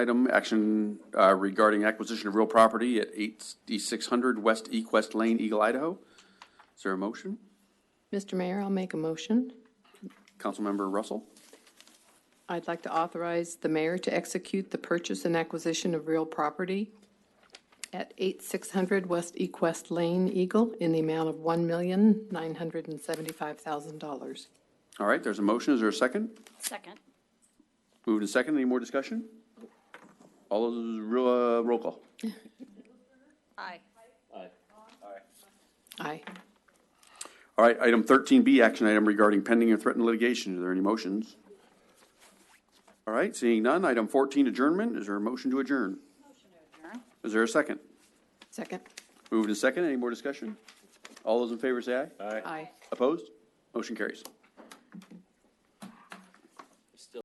Item, action uh, regarding acquisition of real property at 8600 West Equest Lane, Eagle, Idaho. Is there a motion? Mr. Mayor, I'll make a motion. Councilmember Russell, I'd like to authorize the mayor to execute the purchase and acquisition of real property at 8600 West Equest Lane, Eagle, in the amount of $1,975,000. all right, there's a motion, is there a second? Second. Moved and second, any more discussion? All those, real, uh, roll call. Aye. Aye. All right, item 13B, action item regarding pending or threatened litigation. Are there any motions? All right, seeing none, item 14, adjournment. Is there a motion to adjourn? Is there a second? Second? Moved and second, any more discussion? All those in favor say aye. Aye. Opposed? Motion carries.